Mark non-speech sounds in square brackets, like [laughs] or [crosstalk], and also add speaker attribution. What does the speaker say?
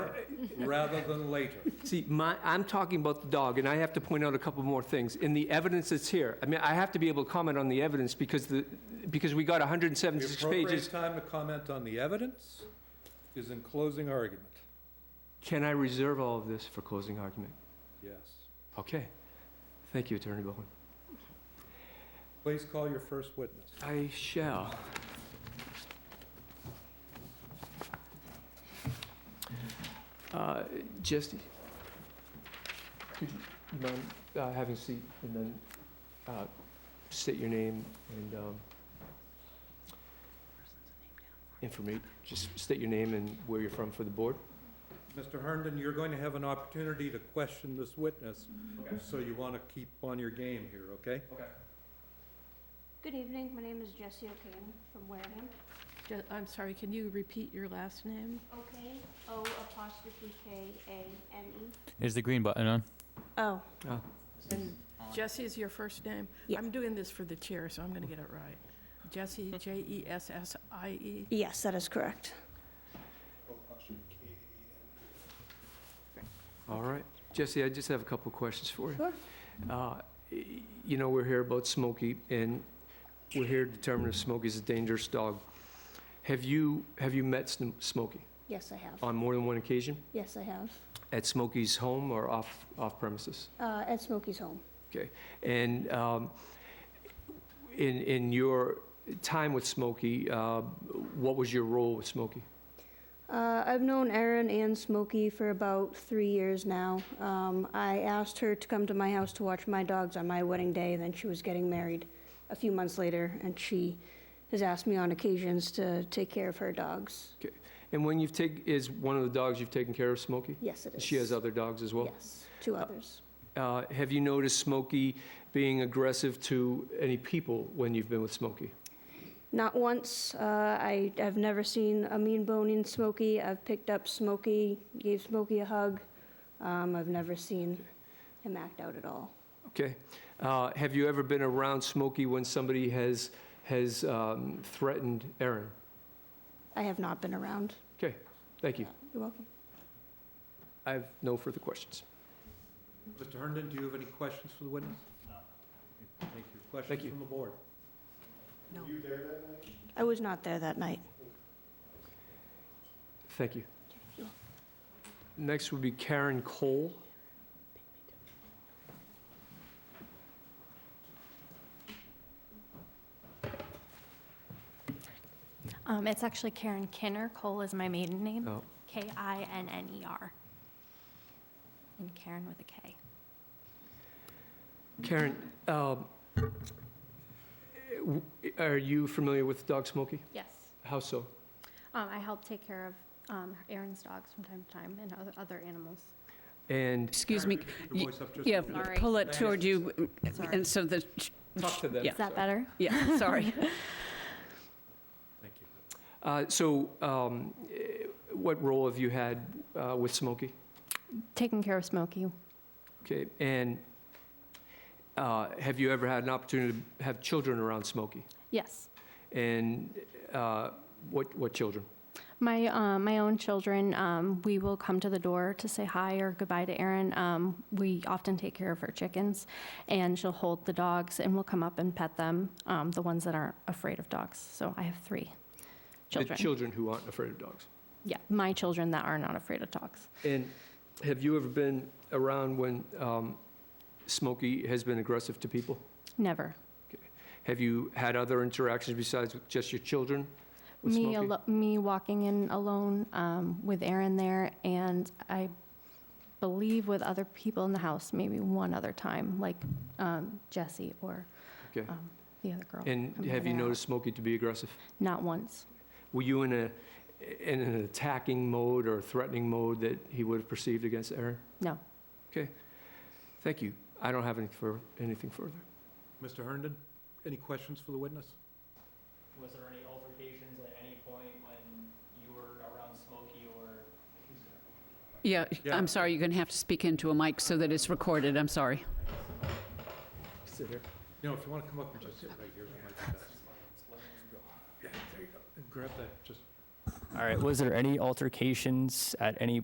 Speaker 1: rather than later.
Speaker 2: [laughs] See, my, I'm talking about the dog, and I have to point out a couple more things. In the evidence that's here, I mean, I have to be able to comment on the evidence because the, because we got
Speaker 1: The
Speaker 2: 176
Speaker 1: appropriate
Speaker 2: pages.
Speaker 1: time to comment on the evidence is in closing argument.
Speaker 2: Can I reserve all of this for closing argument?
Speaker 1: Yes.
Speaker 2: Okay. Thank you, Attorney Bowen.
Speaker 1: Please call your first witness.
Speaker 2: I shall. Uh, Jesse, could you mind uh, having a seat and then uh, state your name and um, informate, just state your name and where you're from for the board?
Speaker 1: Mr. Herndon, you're going to have an opportunity to question this witness, so you want to keep on your game here, okay?
Speaker 3: Good evening, my name is Jessie O'Kane from Wareham.
Speaker 4: Ju- I'm sorry, can you repeat your last name?
Speaker 3: Uh, Okay, O apostrophe K A N E.
Speaker 5: Is the green button on?
Speaker 3: Oh.
Speaker 4: And Jesse is your first name?
Speaker 3: Yeah.
Speaker 4: I'm doing this for the chair, so I'm going to get it right. E Jesse, J-E-S-S-I-E.
Speaker 3: Yes, that is correct.
Speaker 2: All right. Jesse, I just have a couple of questions for you.
Speaker 3: Sure.
Speaker 2: Uh, y- You know, we're here about Smokey, and we're here to determine if Smokey's a dangerous dog. Have you, have you met Sm- Smokey
Speaker 3: Yes, I have.
Speaker 2: on more than one occasion?
Speaker 3: Yes, I have.
Speaker 2: At Smokey's home or off, off premises?
Speaker 3: Uh, at Smokey's home.
Speaker 2: And um, in, in your time with Smokey, uh, what was your role with Smokey?
Speaker 3: Uh, I've known Erin and Smokey for about three years now. Um, I asked her to come to my house to watch my dogs on my wedding day, then she was getting married a few months later, and she has asked me on occasions to take care of her dogs.
Speaker 2: And when you've taken, is one of the dogs you've taken care of Smokey?
Speaker 3: Yes, it is.
Speaker 2: She has other dogs as well?
Speaker 3: Yes, two others.
Speaker 2: Uh, Have you noticed Smokey being aggressive to any people when you've been with Smokey?
Speaker 3: Not once. Uh, I, I've never seen a mean bone in Smokey. I've picked up Smokey, gave Smokey a hug. Um, I've never seen him act out at all.
Speaker 2: Okay? Uh, Have you ever been around Smokey when somebody has, has um, threatened Aaron?
Speaker 3: I have not been around.
Speaker 2: Thank you.
Speaker 3: You're welcome.
Speaker 2: I have no further questions.
Speaker 1: Mr. Herndon, do you have any questions for the witness? No. Thank you.
Speaker 2: Thank
Speaker 1: Questions
Speaker 2: you.
Speaker 1: from the board?
Speaker 4: No.
Speaker 3: I was not there that night.
Speaker 2: Thank you. Next would be Karen Cole.
Speaker 6: Um, it's actually Karen Kinner. Cole is my maiden name.
Speaker 2: Oh.
Speaker 6: K I N N E R. And Karen with a K.
Speaker 2: Karen, um, w- are you familiar with the dog Smokey?
Speaker 6: Yes.
Speaker 2: How so?
Speaker 6: Um, I help take care of um, Aaron's dogs from time to time and other, other animals.
Speaker 2: And
Speaker 7: Excuse
Speaker 1: Karen,
Speaker 7: me,
Speaker 1: could you keep
Speaker 7: y-
Speaker 1: your voice up just a
Speaker 7: yeah,
Speaker 1: little bit?
Speaker 6: Sorry.
Speaker 7: pull it toward you,
Speaker 6: Sorry.
Speaker 7: and so the,
Speaker 2: talk to them.
Speaker 7: Yeah.
Speaker 6: Is
Speaker 2: sorry.
Speaker 6: that better?
Speaker 7: yeah, sorry.
Speaker 1: Thank you.
Speaker 2: Uh, So um, eh, what role have you had uh, with Smokey?
Speaker 6: Taking care of Smokey.
Speaker 2: Okay, and uh, have you ever had an opportunity to have children around Smokey?
Speaker 6: Yes.
Speaker 2: And uh, what, what children?
Speaker 6: My, um, my own children, um, we will come to the door to say hi or goodbye to Erin. Um, we often take care of her chickens, and she'll hold the dogs, and we'll come up and pet them, um, the ones that aren't afraid of dogs. So I have three children.
Speaker 2: The children who aren't afraid of dogs.
Speaker 6: yeah, my children that are not afraid of dogs.
Speaker 2: And have you ever been around when um, Smokey has been aggressive to people?
Speaker 6: Never.
Speaker 2: Have you had other interactions besides with just your children with
Speaker 6: Me,
Speaker 2: Smokey?
Speaker 6: alo- me walking in alone um, with Aaron there, and I believe with other people in the house, maybe one other time, like um, Jesse or
Speaker 2: Okay.
Speaker 6: um, the other girl.
Speaker 2: And
Speaker 6: I'm
Speaker 2: have you
Speaker 6: gonna-
Speaker 2: noticed Smokey to be aggressive?
Speaker 6: Not once.
Speaker 2: Were you in a, in an attacking mode or threatening mode that he would have perceived against Aaron?
Speaker 6: No.
Speaker 2: Okay. Thank you. I don't have any fur, anything further.
Speaker 1: Mr. Herndon, any questions for the witness?
Speaker 8: Was there any altercations at any point when you were around Smokey or?
Speaker 7: Yeah,
Speaker 1: Yeah.
Speaker 7: I'm sorry, you're going to have to speak into a mic so that it's recorded, I'm sorry.
Speaker 2: Sit here.
Speaker 1: You know, if you want to come up and just sit right here, that might be best. Yeah, there you go. And grab that, just
Speaker 8: All right, was there any altercations at any